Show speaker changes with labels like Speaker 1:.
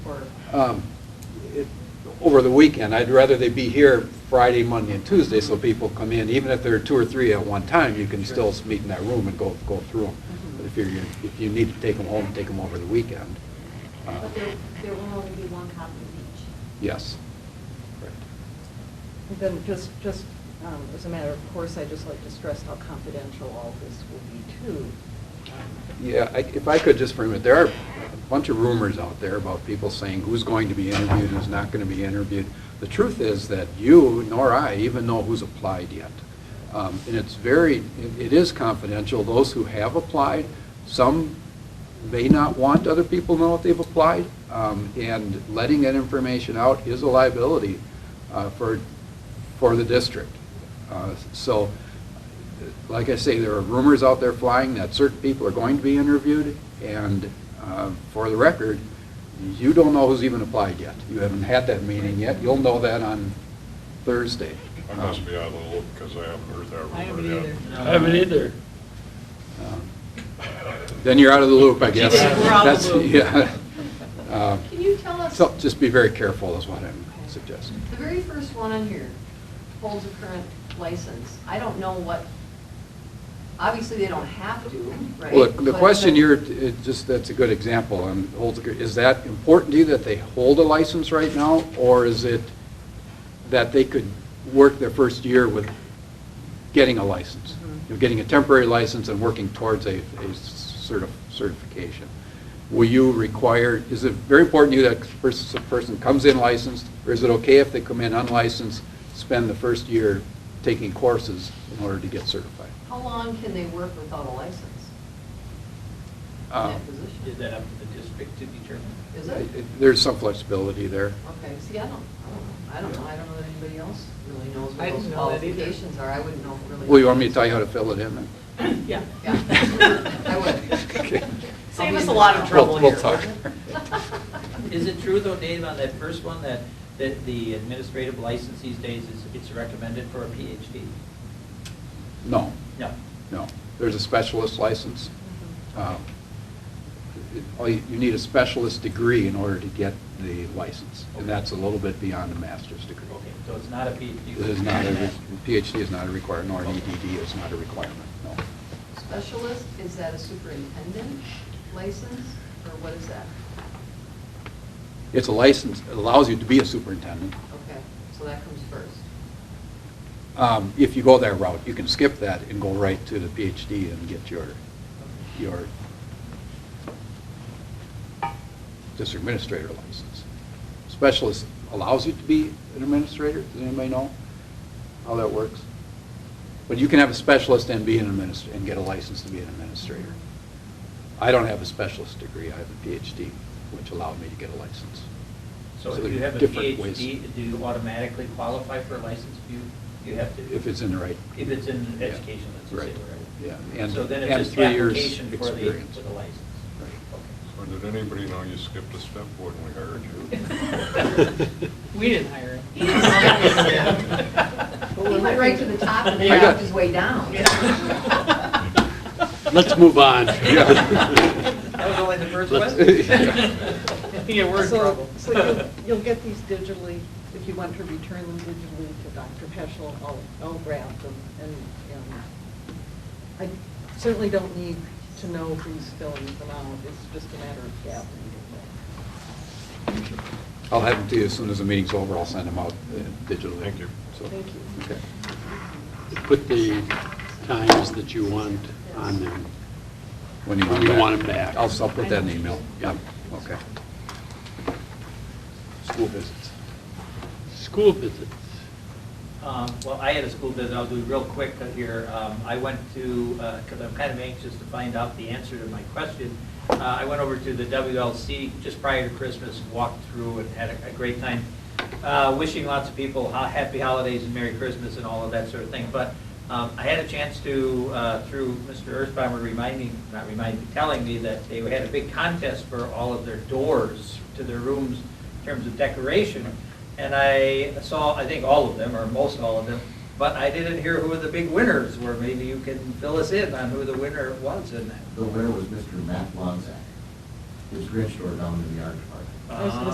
Speaker 1: um, it- over the weekend. I'd rather they be here Friday, Monday, and Tuesday, so people come in, even if there are two or three at one time, you can still meet in that room and go, go through them. But if you're, if you need to take them home, take them over the weekend. Uh,
Speaker 2: But there, there will only be one copy of
Speaker 1: Yes.
Speaker 3: Then just, just um, as a matter of course, I'd just like to stress how confidential all this will be too.
Speaker 1: Yeah, I- if I could just for a minute, there are a bunch of rumors out there about people saying who's going to be interviewed, who's not going to be interviewed. The truth is that you nor I even know who's applied yet. Um, And it's very, it- it is confidential. Those who have applied, some may not want other people to know that they've applied, um, and letting that information out is a liability uh, for, for the district. Uh, So, like I say, there are rumors out there flying that certain people are going to be interviewed, and uh, for the record, you don't know who's even applied yet. You haven't had that meeting yet. You'll know that on Thursday.
Speaker 4: I must be out of the loop because I haven't heard that rumor yet.
Speaker 5: I haven't either.
Speaker 6: I haven't either.
Speaker 1: Um, Then you're out of the loop, I guess.
Speaker 5: Yeah, we're out of the loop.
Speaker 1: That's- yeah. Um,
Speaker 2: each. Can you tell us,
Speaker 1: So
Speaker 2: the
Speaker 1: just be very careful is what I'm suggesting.
Speaker 2: very first one on here holds a current license. I don't know what, obviously, they don't have to, right?
Speaker 1: Well, the- the
Speaker 2: But-
Speaker 1: question
Speaker 2: but-
Speaker 1: here, it just, that's a good example, um, holds a good- is that important to you that they hold a license right now? Or is it that they could work their first year with getting a license?
Speaker 2: Mm-hmm.
Speaker 1: You know, Getting a temporary license and working towards a a certi- certification? Will you require, is it very important to you that pers- a person comes in licensed? Or is it okay if they come in unlicensed, spend the first year taking courses in order to get certified?
Speaker 2: How long can they work without a license? in
Speaker 1: Uh,
Speaker 2: that position?
Speaker 5: Is that up to the district to determine?
Speaker 2: Is it?
Speaker 1: There's some flexibility there.
Speaker 2: Okay, see, I don't, I don't know. I don't know, I don't know that anybody else really knows
Speaker 5: I
Speaker 2: what those
Speaker 5: didn't know that either.
Speaker 2: qualifications are. I wouldn't know really.
Speaker 1: Well, you want me to tell you how to fill it in then?
Speaker 5: Yeah.
Speaker 2: Yeah, I would.
Speaker 1: Okay.
Speaker 5: Save us a lot of trouble
Speaker 1: We'll-
Speaker 5: here.
Speaker 1: We'll talk.
Speaker 5: Is it true though, Dave, on that first one, that, that the administrative license these days is, it's recommended for a PhD?
Speaker 1: No,
Speaker 5: No.
Speaker 1: no. There's a specialist license. Um, it- all You you need a specialist degree in order to get the license, and that's a little bit beyond a master's degree.
Speaker 5: Okay, so it's not a PhD.
Speaker 1: It is not, a re- PhD is not a requirement, nor an EDD is not a requirement, no.
Speaker 2: Specialist, is that a superintendent license, or what is that?
Speaker 1: It's a license, it allows you to be a superintendent.
Speaker 2: Okay, so that comes first.
Speaker 1: Um, If you go that route, you can skip that and go right to the PhD and get your, your district administrator license. Specialist allows you to be an administrator, does anybody know how that works? But you can have a specialist and be an administrator, and get a license to be an administrator. I don't have a specialist degree, I have a PhD, which allowed me to get a license.
Speaker 5: So
Speaker 1: So
Speaker 5: if you have a
Speaker 1: different ways.
Speaker 5: PhD, do you automatically qualify for a license? Do you, you have to?
Speaker 1: If it's in the right.
Speaker 5: If it's in
Speaker 1: Yeah.
Speaker 5: education, let's just say,
Speaker 1: Right.
Speaker 5: whatever.
Speaker 1: Yeah, and,
Speaker 5: So then
Speaker 1: and
Speaker 5: it's just
Speaker 1: three years
Speaker 5: application for the,
Speaker 1: experience.
Speaker 5: for the license. Okay.
Speaker 4: Or did anybody know you skipped a step when we hired you?
Speaker 5: We didn't hire him.
Speaker 2: He didn't hire He went right to the top and then
Speaker 1: I got-
Speaker 2: worked his way down.
Speaker 6: Let's move on.
Speaker 5: That was only the first
Speaker 6: Let's-
Speaker 5: question? Yeah, we're in
Speaker 3: So-
Speaker 5: trouble.
Speaker 3: So you'll, you'll get these digitally, if you want to return them digitally to Dr. Peschel, I'll, I'll grab them. And, and I certainly don't need to know who's filling them out, it's just a matter of gathering them.
Speaker 1: I'll have them to you as soon as the meeting's over, I'll send them out uh, digitally.
Speaker 4: Thank you.
Speaker 1: So-
Speaker 3: Thank you.
Speaker 1: Okay.
Speaker 6: Put the times that you want on them.
Speaker 1: When you
Speaker 6: When you want 'em back.
Speaker 1: I'll, I'll put that in the email. Yeah, okay. School visits.
Speaker 6: School visits.
Speaker 5: Um, Well, I had a school visit, I'll do it real quick here. Um, I went to, because I'm kind of anxious to find out the answer to my question, Uh, I went over to the WLC just prior to Christmas, walked through and had a- a great time, uh, wishing lots of people ho- happy holidays and Merry Christmas and all of that sort of thing. But um, I had a chance to, uh, through Mr. Earthbomber reminding, not reminding, telling me that they had a big contest for all of their doors to their rooms in terms of decoration. And I saw, I think all of them, or most all of them, but I didn't hear who the big winners were. Maybe you can fill us in on who the winner was in that.
Speaker 7: The winner was Mr. Matt Lonzak, his grand store down in the art department.
Speaker 3: I was gonna